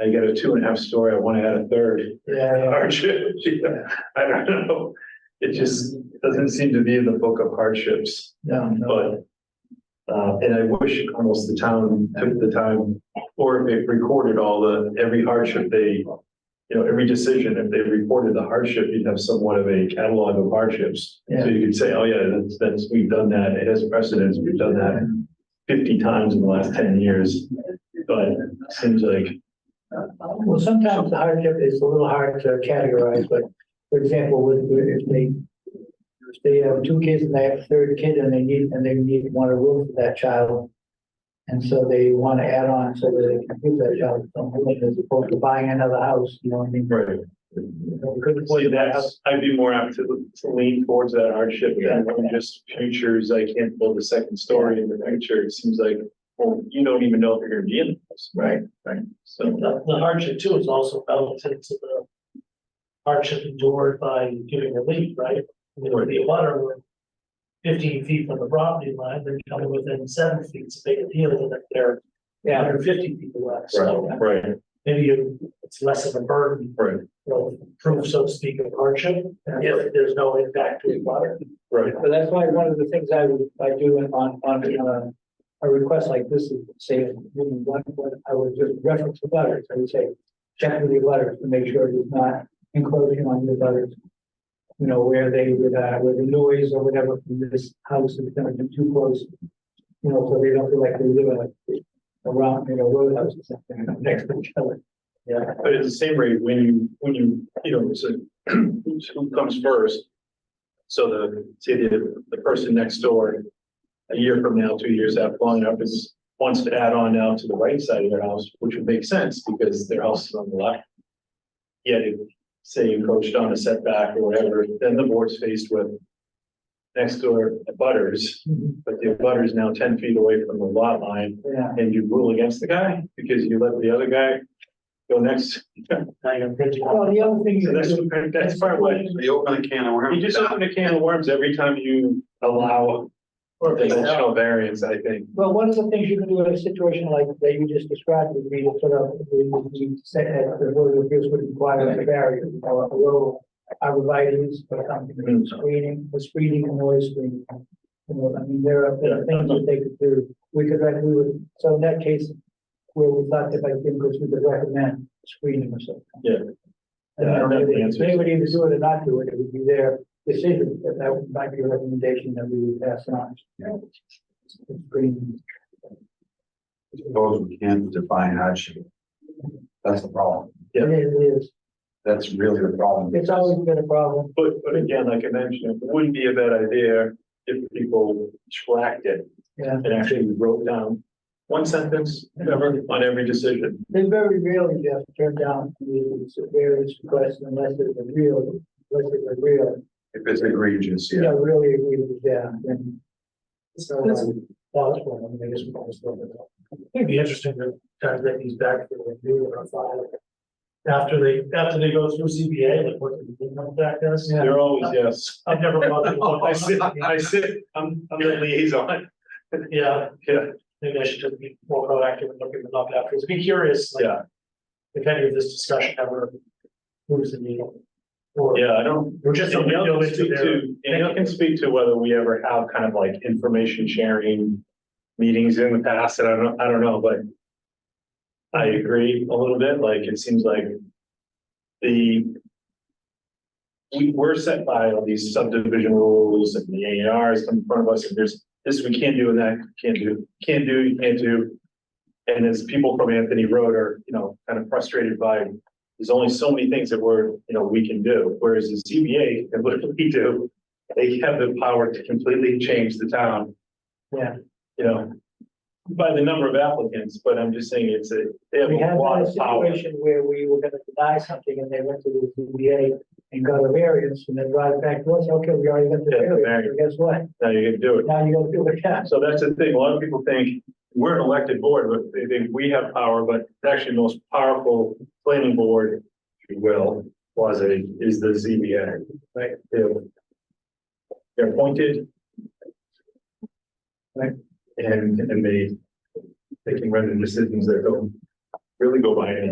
I got a two and a half story, I wanna add a third. Yeah. Hardship, I don't know, it just doesn't seem to be in the book of hardships. No, no. But, uh, and I wish almost the town took the time, or if they recorded all the, every hardship they, you know, every decision, if they reported the hardship, you'd have somewhat of a catalog of hardships. So Yeah. you could say, oh yeah, that's, that's, we've done that, it has precedence, we've done that fifty times in the last ten years. But it seems like, Well, sometimes the hardship is a little hard to categorize, but for example, with, with- if they, if they have two kids and they have a third kid and they need, and they need, want a room for that child. And so they want to add on so that they can give that child some room as opposed to buying another house, you know what I mean? right, We couldn't well, see that house. that's, I'd be more apt to to lean towards that hardship than just futures, I can't build a second story in the future, it seems like, well, you don't even know if you're gonna be in the house. Right. Right, so, The the hardship too is also relative to the hardship endured by giving relief, right? I mean, If the water were fifteen feet from the property line, they're coming within seven feet, it's a big deal than if they're Yeah, hundred fifty feet away. So right, right, maybe you- it's less of a burden, right, you know, proof, so to speak, of hardship, if there's no impact to the water. right, but that's why one of the things I would, I do on, on, uh, a request like this is, say, if you want one, I would just reference the letters, I would say, check with the letters to make sure there's not encroaching on the letters. You know, where they, would, uh, where the noise or whatever from this house is gonna be too close. You know, so they don't feel like they live in a, around, you know, roadhouse or something, next to each other. Yeah. but at the same rate, when you, when you, you know, so who comes first? So the, say the, the person next door, a year from now, two years after, long enough, is, wants to add on now to the right side of their house, which would make sense, because their house is on the left. Yet, if, say you coached on a setback or whatever, then the board's faced with next door butters, but the butter's now ten feet away from the lot line, Yeah, and you rule against the guy because you let the other guy go next. Now you're bridging. well, the other thing is. So that's, that's part of what, They open a can you of worms. just open a can of worms every time you allow Or if they- dimensional variance, I think. Well, one of the things you can do in a situation like that you just described would be to sort of, you you said that the board of appeals would require a barrier, or a row, arborvitae's or Mm. something, screening, the screening and noise screening. You know, I mean, there are there are things that they could do, we could, rec- we would, so in that case, where we thought that I think, because we could recommend screening or something. Yeah. And Yeah, I don't have the then answers. they- they would either do it or not do it, it would be their decision, but that might be a recommendation that we would pass on. It's green. Those we can't define hardship. That's the problem. Yeah. It is, it is. That's really the problem. It's always been a problem. But, but again, like I mentioned, it wouldn't be a bad idea if people tracked it Yeah, and actually wrote down one sentence ever on every decision. they very rarely just turn down these various requests unless it's a real, unless it's a real, If it's egregious, you yeah. know, really agree with them. And so, um, That's- that was one of the biggest problems. It'd be interesting to kind of get these back for the new or file. After they, after they go through CBA, like what the income back does. They're always, yes. I've never bothered. to look. I sit, I sit, I'm, I'm the liaison. Yeah, Yeah, maybe I should just be more proactive and looking them up afterwards. Be curious, like, yeah, if any of this discussion ever moves the needle. Or yeah, I don't, We're just. And Neil can speak to, and Neil can speak to whether we ever have kind of like information sharing meetings in the past, and I don't, I don't know, but I agree a little bit, like, it seems like the we were set by all these subdivision rules and the A and Rs come in front of us, and there's this we can't do and that can't do, can't do, you can't do. And as people from Anthony Road are, you know, kind of frustrated by there's only so many things that we're, you know, we can do, whereas the CBA, and what we do, they have the power to completely change the town. Yeah. You know, by the number of applicants, but I'm just saying it's a, they have We a had lot a of power. situation where we were gonna deny something and they went to the ZBA and got a variance and then brought it back to us, okay, we already got the Yeah, the variance, so guess what? Now you can do it. Now you gotta do it again. So that's the thing, a lot of people think we're an elected board, but they think we have power, but it's actually the most powerful planning board, if you will, was it, is the ZBA. Right. They're- They're appointed. Right, and, and they, they can render decisions that don't really go by any